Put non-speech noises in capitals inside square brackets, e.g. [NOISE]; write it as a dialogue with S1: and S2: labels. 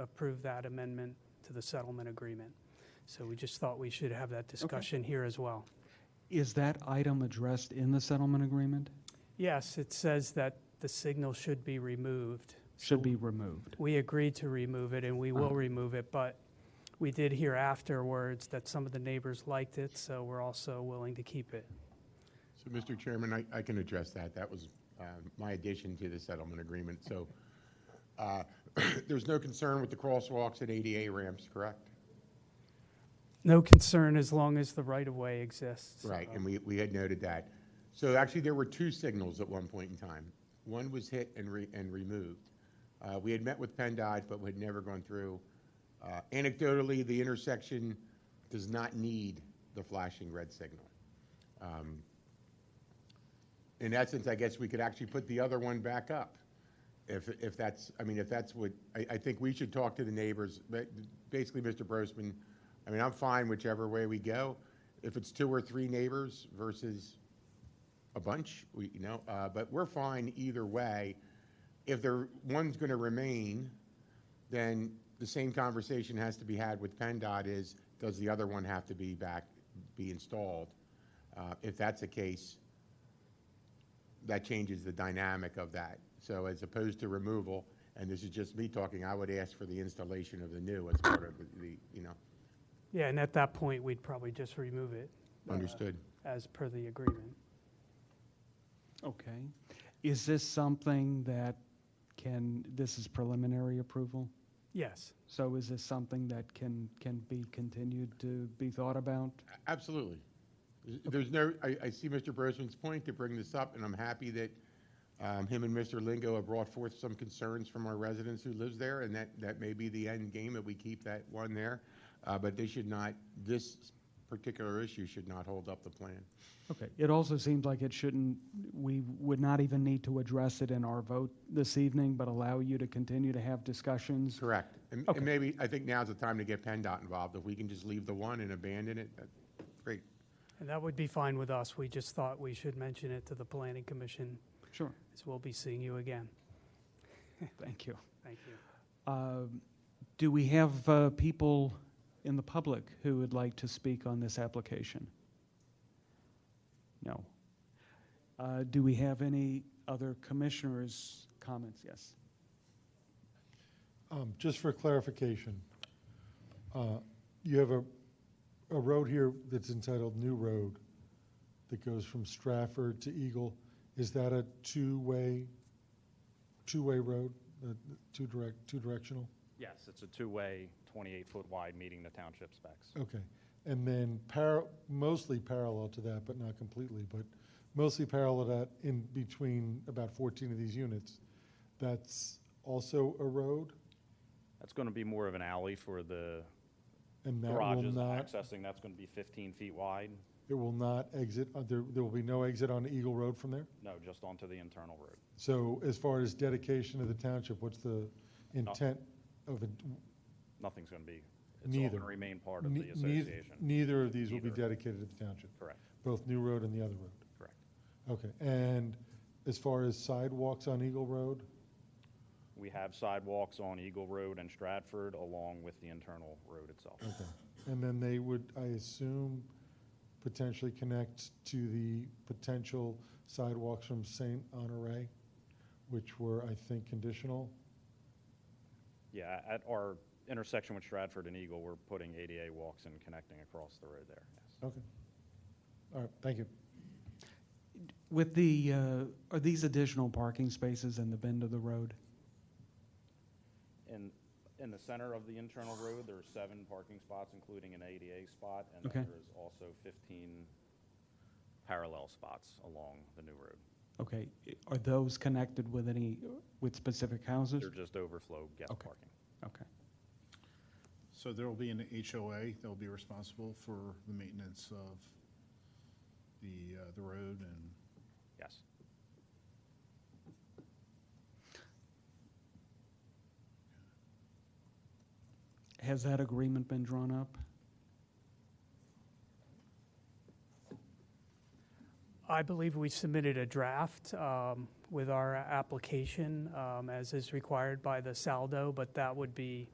S1: approve that amendment to the settlement agreement. So we just thought we should have that discussion here as well.
S2: Is that item addressed in the settlement agreement?
S1: Yes, it says that the signal should be removed.
S2: Should be removed.
S1: We agreed to remove it, and we will
S2: Uh-huh.
S1: remove it, but we did hear afterwards that some of the neighbors liked it, so we're also willing to keep it.
S3: So, Mr. Chairman, I, I can address that. That was um, my addition to the settlement agreement. So uh, [COUGHS] there's no concern with the crosswalks and ADA ramps, correct?
S1: No concern as long as the right-of-way exists.
S3: Right, and we, we had noted that. So actually, there were two signals at one point in time. One was hit and re, and removed. Uh, we had met with PennDOT, but we had never gone through. Uh, anecdotally, the intersection does not need the flashing red signal. Um, In essence, I guess we could actually put the other one back up. If, if that's, I mean, if that's what, I, I think we should talk to the neighbors, but basically, Mr. Brosman, I mean, I'm fine whichever way we go. If it's two or three neighbors versus a bunch, we, you know, uh, but we're fine either way. If there, one's gonna remain, then the same conversation has to be had with PennDOT is, does the other one have to be back, be installed? Uh, if that's the case, that changes the dynamic of that. So as opposed to removal, and this is just me talking, I would ask for the installation of the new as part of the- the, you know,
S1: Yeah, and at that point, we'd probably just remove it. uh,
S3: understood.
S1: As per the agreement.
S2: Okay. Is this something that can, this is preliminary approval?
S1: Yes,
S2: So is this something that can, can be continued to be thought about?
S3: Absolutely. There's no, I, I see Mr. Brosman's point to bring this up, and I'm happy that um, him and Mr. Lingo have brought forth some concerns from our residents who lives there, and that, that may be the end game, that we keep that one there. Uh, But they should not, this particular issue should not hold up the plan.
S2: Okay. It also seems like it shouldn't, we would not even need to address it in our vote this evening, but allow you to continue to have discussions.
S3: Correct. And
S2: Okay.
S3: and maybe, I think now's the time to get PennDOT involved. If we can just leave the one and abandon it, that- great.
S1: and that would be fine with us. We just thought we should mention it to the planning commission,
S2: Sure.
S1: as we'll be seeing you again.
S2: Thank you.
S1: Thank you.
S2: Um, Do we have uh, people in the public who would like to speak on this application? No. Uh, Do we have any other commissioners' comments? Yes.
S4: Um, Just for clarification, uh, you have a, a road here that's entitled New Road that goes from Stratford to Eagle. Is that a two-way, two-way road, Uh, two direct, two directional?
S5: Yes, it's a two-way, 28-foot wide, meeting the township specs.
S4: Okay. And then par, mostly parallel to that, but not completely, but mostly parallel to that in between about 14 of these units, that's also a road?
S5: That's going to be more of an alley for the
S4: And that will
S5: garages
S4: not
S5: accessing. That's going to be 15 feet wide.
S4: It will not exit, uh, there, there will be no exit on Eagle Road from there?
S5: No, just onto the internal road.
S4: So as far as dedication to the township, what's the intent of it?
S5: Nothing's going to be, it's all going
S4: Neither.
S5: to remain part of
S4: Ne-
S5: the
S4: neith-
S5: association.
S4: Neither of these will be
S5: Neither.
S4: dedicated to the township,
S5: Correct,
S4: both New Road and the other road.
S5: correct.
S4: Okay, and as far as sidewalks on Eagle Road,
S5: We have sidewalks on Eagle Road and Stratford along with the internal road itself.
S4: okay. And then they would, I assume, potentially connect to the potential sidewalks from St. Honore, which were, I think, conditional?
S5: Yeah, at our intersection with Stratford and Eagle, we're putting ADA walks and connecting across the road there. yes.
S4: Okay. All right, thank you.
S2: With the, uh, are these additional parking spaces in the bend of the road?
S5: In, in the center of the internal road, there are seven parking spots, including an ADA spot, and
S2: Okay.
S5: then there is also 15 parallel spots along the new road.
S2: Okay. Are those connected with any, with specific houses?
S5: They're just overflow guest
S2: Okay.
S5: parking.
S2: Okay.
S6: So there will be an HOA that will be responsible for the maintenance of the, uh, the road and
S5: Yes.
S2: Has that agreement been drawn up?
S1: I believe we submitted a draft um, with our application um, as is required by the saldo, but that would be